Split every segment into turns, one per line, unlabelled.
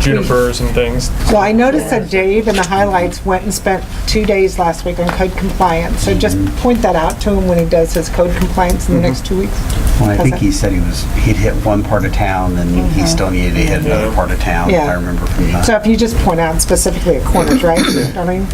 junipers and things.
Well, I noticed that Dave in the highlights went and spent two days last week on code compliance, so just point that out to him when he does his code compliance in the next two weeks.
Well, I think
Okay. Mm-hmm.
he said he was, he'd hit one part of town, and he still needed to hit another part of town, if
Yeah.
I remember from
So
that.
if you just point out specifically at corners, right? I mean,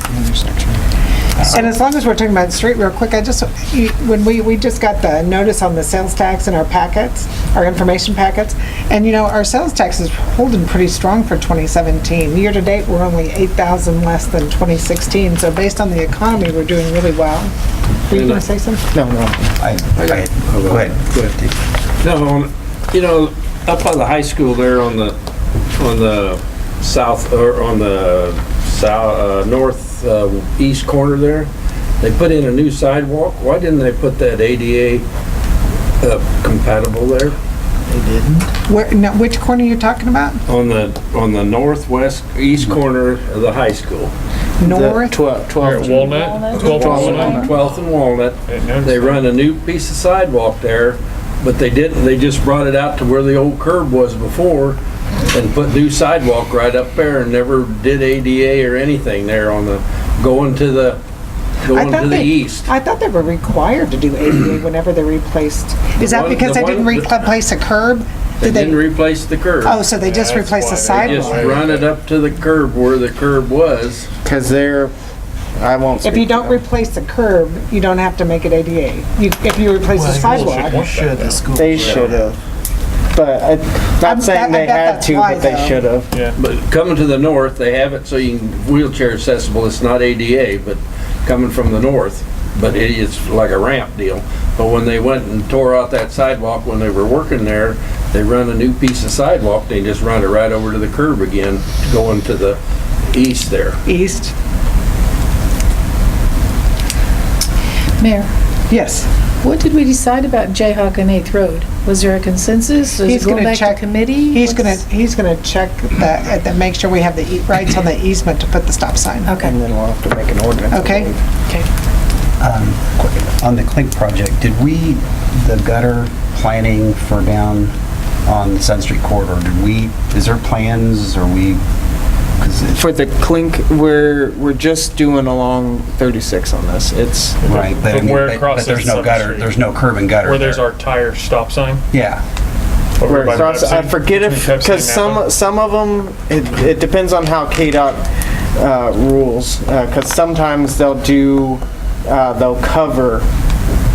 And as long as we're talking about the street real quick, I just, you- when we, we just got the notice on the sales tax in our packets, our information packets, and you know, our sales tax is holding pretty strong for 2017. Year-to-date, we're only 8,000 less than 2016, so based on the economy, we're doing really well. Were you gonna say something?
No, no.
I, I, go ahead.
No, on- you know, up by the high school there on the, on the south, or on the south, uh, north, uh, east corner there, they put in a new sidewalk. Why didn't they put that ADA uh, compatible there?
They didn't.
Where, now, which corner you're talking about?
On the, on the northwest, east corner of the high school.
North?
Twelve,
Here at
twelve.
Walnut, 12 Walnut.
12th and Walnut. They run a new piece of sidewalk there, but they didn't, they just brought it out to where the old curb was before and put new sidewalk right up there and never did ADA or anything there on the, going to the,
I
going
thought
to the
they-
east.
I thought they were required to do ADA whenever they replaced. Is that
one-
because
the
they didn't
one-
replace a curb?
They didn't replace the curb.
Oh, so they just
That's
replaced the
why
They just
sidewalk?
run it up to the curb where the curb was.
Cause they're, I won't.
If
speak
you
to
don't
them.
replace the curb, you don't have to make it ADA. You, if you replace the sidewalk,
Should the school.
They should've. But I,
I'm-
not saying
I
they
bet
had
that's
to,
why,
but they
though.
should've.
But coming to the north, they have it so you can wheelchair accessible, it's not ADA, but coming from the north, but it is like a ramp deal. But when they went and tore out that sidewalk when they were working there, they run a new piece of sidewalk, they just run it right over to the curb again, going to the east there.
east,
Mayor,
yes.
what did we decide about Jayhawk and Eighth Road? Was there a consensus? Does
He's
it go
gonna
back to
check-
committee?
He's gonna,
What's-
he's gonna check that, that make sure we have the e- rights on the easement to put the stop sign.
Okay.
And then we'll have to make an ordinance.
Okay.
Um, quick- On the Clink project, did we, the gutter planning for down on the Sun Street corridor, did we, is there plans, or we, because it's,
For the clink, we're, we're just doing along thirty-six on this. It's,
right, but I
From
mean,
where it
but- but
crosses
there's no
Sun
gutter,
Street.
there's no curb and gutter
Where there's
there.
our tire stop sign.
Yeah.
over
Right,
by
so I- I
Pepsi,
forget if,
between Pepsi and
because some,
Napa.
some of them, it, it depends on how KDOT, uh, rules. Because sometimes they'll do, uh, they'll cover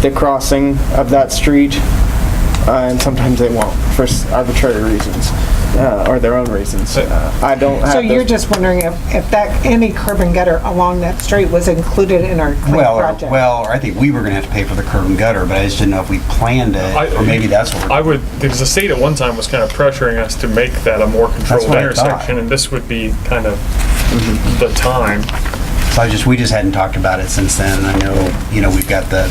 the crossing of that street, uh, and sometimes they won't for s- arbitrary reasons, uh, or their own reasons. Uh, I don't have.
So
those-
you're just wondering if, if that, any curb and gutter along that street was included in our clean
Well, or-
project?
well, or I think we were gonna have to pay for the curb and gutter, but I just didn't know if we planned
I-
it, or maybe that's what we're,
I would, because the state at one time was kind of pressuring us to make that a more controlled
what I thought.
intersection, and this would be kind of the time.
so I just, we just hadn't talked about it since then. I know, you know, we've got the,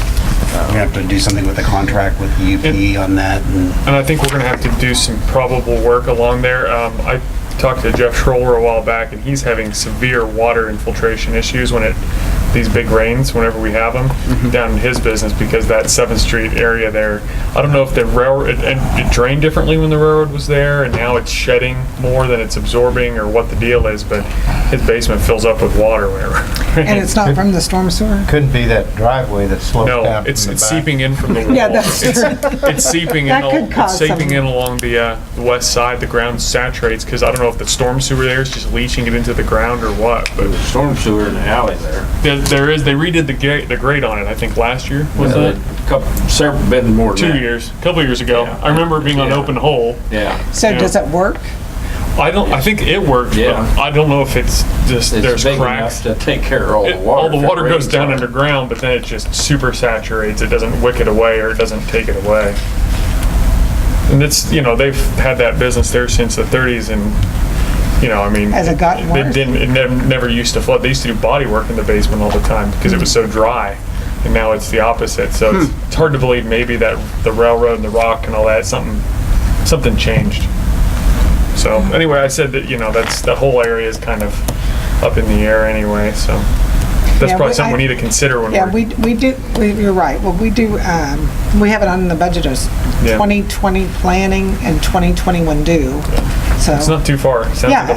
we have to do something with the contract with the UP on that, and
And I think we're gonna have to do some probable work along there. Um, I talked to Jeff Schroller a while back, and he's having severe water infiltration issues when it, these big rains, whenever we have them, down in his business, because that Seventh Street area there, I don't know if the railroad, it- and it drained differently when the railroad was there, and now it's shedding more than it's absorbing, or what the deal is, but his basement fills up with water whenever.
And it's not from the storm sewer?
Couldn't be that driveway that slopes down
No,
from the
it's, it's
back.
seeping in from the wall.
Yeah, that's
It's-
true.
It's seeping in,
That
al-
could
it's
cause
seeping
some-
in along the, uh, the west side, the ground saturates, because I don't know if the storm sewer there is just leaching it into the ground or what, but
Storm sewer in the alley there.
there, there is, they redid the gate, the grate on it, I think, last year, was it?
Couple, several, been more than
Two
that.
years, a couple years ago.
Yeah.
I remember it being an
Yeah.
open hole.
Yeah.
So
Yeah.
does it work?
I don't, I think it worked, but
Yeah.
I don't know if it's just,
It's
there's
big enough
cracks.
to take care of all the
It-
water.
All the
if it
water goes
rains on
down
it.
underground, but then it just super saturates. It doesn't wick it away or it doesn't take it away. And it's, you know, they've had that business there since the thirties and, you know, I mean.
Has it gotten
they
worse?
didn't, it never, never used to flood. They used to do body work in the basement all the time because it was so dry. And now it's the opposite. So it's,
Hmm.
it's hard to believe maybe that the railroad and the rock and all that, something, something changed. So anyway, I said that, you know, that's, the whole area is kind of up in the air anyway, so. That's
Yeah, we-
probably something we
I-
need to consider when
Yeah,
we're,
we, we do, we- you're right. Well, we do, um, we have it on the budget as
Yeah.
2020 planning and 2021 due. so.
It's not too far. Sounds
Yeah,
like a